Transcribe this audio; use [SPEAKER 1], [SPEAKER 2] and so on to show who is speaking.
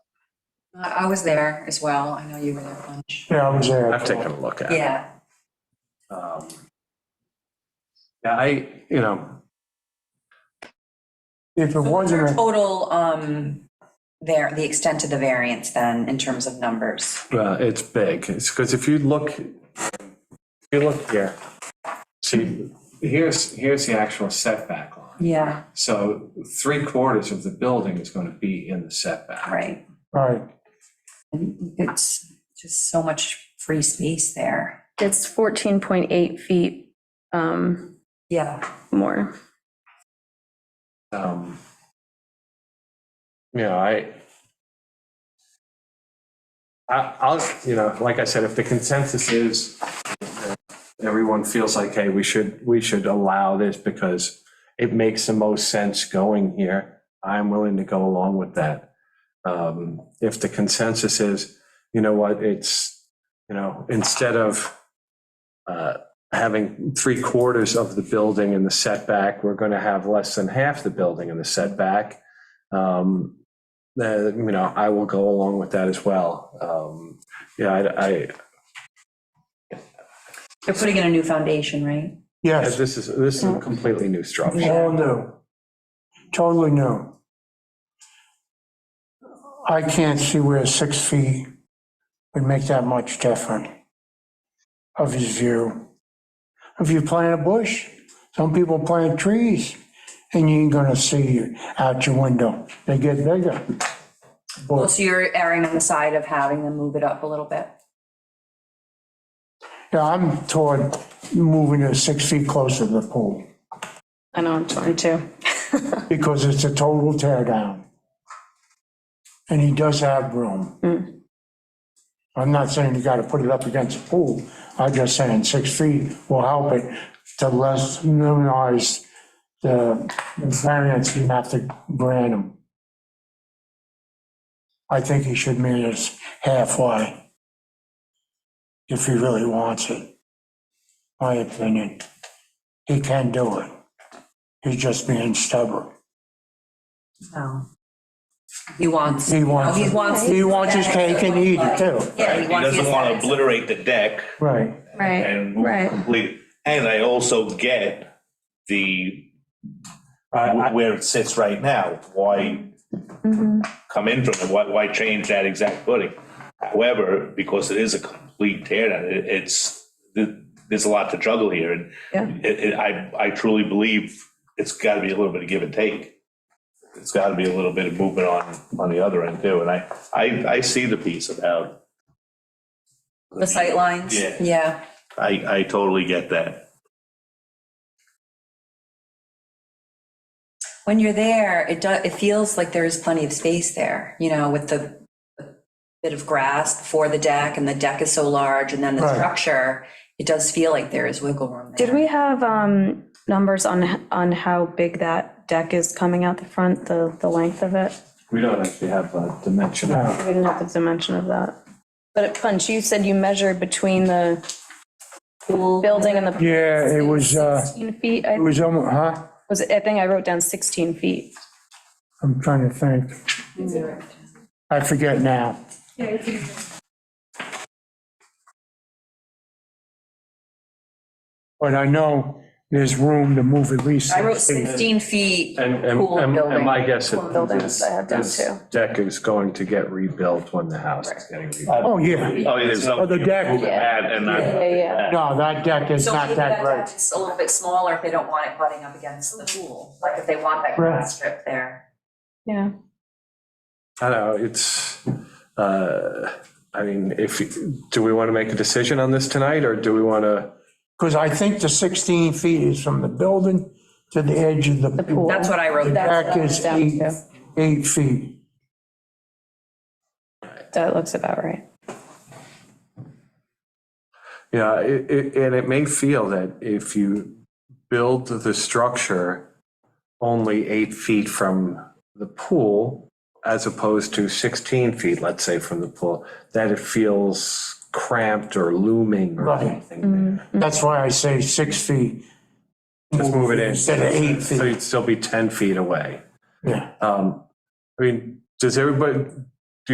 [SPEAKER 1] Uh, I I was there as well. I know you were there a bunch.
[SPEAKER 2] Yeah, I was there.
[SPEAKER 3] I've taken a look at it.
[SPEAKER 1] Yeah,
[SPEAKER 3] Um, Yeah, I, you know,
[SPEAKER 2] If it
[SPEAKER 1] What's
[SPEAKER 2] wasn't,
[SPEAKER 1] our
[SPEAKER 2] a-
[SPEAKER 1] total, um, there, the extent of the variance then, in terms of numbers?
[SPEAKER 3] uh, it's big, it's because if you look, if you look here, see, here's, here's the actual setback line.
[SPEAKER 1] Yeah.
[SPEAKER 3] So three quarters of the building is going to be in the setback.
[SPEAKER 1] Right,
[SPEAKER 2] right,
[SPEAKER 1] and it's just so much free space there.
[SPEAKER 4] It's 14.8 feet um,
[SPEAKER 1] Yeah.
[SPEAKER 4] more.
[SPEAKER 3] Um, You know, I, I, I'll, you know, like I said, if the consensus is, uh, everyone feels like, hey, we should, we should allow this because it makes the most sense going here, I'm willing to go along with that. Um, If the consensus is, you know what, it's, you know, instead of uh, having three quarters of the building in the setback, we're going to have less than half the building in the setback. Um, the- you know, I will go along with that as well. Um, yeah, I, I,
[SPEAKER 1] They're putting in a new foundation, right?
[SPEAKER 2] yes,
[SPEAKER 3] this is, this is a completely new
[SPEAKER 2] it's
[SPEAKER 3] structure.
[SPEAKER 2] all new, totally new. I can't see where six feet would make that much difference of his view. If you plant a bush, some people plant trees, and you ain't gonna see out your window, they get bigger.
[SPEAKER 1] Well,
[SPEAKER 2] But,
[SPEAKER 1] so you're erring on the side of having them move it up a little bit?
[SPEAKER 2] yeah, I'm toward moving it six feet closer to the pool.
[SPEAKER 4] I know, I'm 22.
[SPEAKER 2] because it's a total tear down. And he does have room. I'm not saying you gotta put it up against the pool, I'm just saying six feet will help it to less minimize the the variance you have to grant him. I think he should meet us halfway if he really wants it, my opinion. He can do it. He's just being stubborn.
[SPEAKER 1] No. Oh. He wants.
[SPEAKER 2] He wants,
[SPEAKER 1] He wants.
[SPEAKER 2] he wants his cake and eat it too.
[SPEAKER 1] Yeah,
[SPEAKER 5] He doesn't want to obliterate the deck
[SPEAKER 2] Right,
[SPEAKER 4] Right,
[SPEAKER 5] and
[SPEAKER 4] Right.
[SPEAKER 5] complete. And I also get the,
[SPEAKER 3] I-
[SPEAKER 5] where it sits right now, why come in from it, why, why change that exact footing? However, because it is a complete tear down, it- it's, th- there's a lot to juggle here and
[SPEAKER 4] Yeah.
[SPEAKER 5] it, it, I, I truly believe it's got to be a little bit of give and take. It's got to be a little bit of movement on, on the other end too. And I, I, I see the piece about,
[SPEAKER 1] The sight lines.
[SPEAKER 5] Yeah.
[SPEAKER 1] Yeah.
[SPEAKER 5] I, I totally get that.
[SPEAKER 1] When you're there, it does, it feels like there is plenty of space there, you know, with the bit of grass before the deck and the deck is so large and then the
[SPEAKER 2] Right.
[SPEAKER 1] structure, it does feel like there is wiggle room there.
[SPEAKER 4] Did we have um, numbers on, on how big that deck is coming out the front, the, the length of it?
[SPEAKER 3] We don't actually have a dimension.
[SPEAKER 2] No.
[SPEAKER 4] We didn't have the dimension of that. But Punch, you said you measured between the building and the.
[SPEAKER 2] yeah, it was, uh,
[SPEAKER 4] 16 feet,
[SPEAKER 2] it
[SPEAKER 4] I-
[SPEAKER 2] was almost, huh?
[SPEAKER 4] was, it- I think I wrote down 16 feet.
[SPEAKER 2] I'm trying to think. I forget now. But I know there's room to move at least.
[SPEAKER 1] I wrote
[SPEAKER 2] six feet.
[SPEAKER 1] 16 feet.
[SPEAKER 3] And, and-
[SPEAKER 1] pool
[SPEAKER 3] and, and
[SPEAKER 1] building.
[SPEAKER 3] my guess is
[SPEAKER 4] Pool buildings,
[SPEAKER 3] this-
[SPEAKER 4] I have down
[SPEAKER 3] this
[SPEAKER 4] too.
[SPEAKER 3] Deck is going to get rebuilt when the house is getting rebuilt.
[SPEAKER 2] Oh, yeah.
[SPEAKER 5] Oh, there's no.
[SPEAKER 2] Oh, the deck.
[SPEAKER 5] Move it back and not-
[SPEAKER 4] Yeah, yeah.
[SPEAKER 2] No, that deck is
[SPEAKER 1] So
[SPEAKER 2] not
[SPEAKER 1] maybe
[SPEAKER 2] that
[SPEAKER 1] that
[SPEAKER 2] great.
[SPEAKER 1] deck is a little bit smaller if they don't want it butting up against the pool, like if they want that
[SPEAKER 2] Right.
[SPEAKER 1] grass strip there.
[SPEAKER 4] Yeah.
[SPEAKER 3] I don't know, it's, uh, I mean, if, you- do we want to make a decision on this tonight, or do we want to?
[SPEAKER 2] Because I think the 16 feet is from the building to the edge of the pool.
[SPEAKER 1] That's what I wrote.
[SPEAKER 4] That's what
[SPEAKER 2] Back
[SPEAKER 4] I
[SPEAKER 2] is
[SPEAKER 4] wrote down,
[SPEAKER 2] eight,
[SPEAKER 4] too.
[SPEAKER 2] eight feet.
[SPEAKER 4] That looks about right.
[SPEAKER 3] Yeah, it, it, and it may feel that if you build the structure only eight feet from the pool, as opposed to 16 feet, let's say, from the pool, that it feels cramped or looming or
[SPEAKER 2] Right.
[SPEAKER 3] anything there.
[SPEAKER 2] That's why I say six feet.
[SPEAKER 3] Just move it in.
[SPEAKER 2] Instead of eight
[SPEAKER 3] So
[SPEAKER 2] feet,
[SPEAKER 3] you'd still be 10 feet away.
[SPEAKER 2] yeah.
[SPEAKER 3] Um, I mean, does everybody,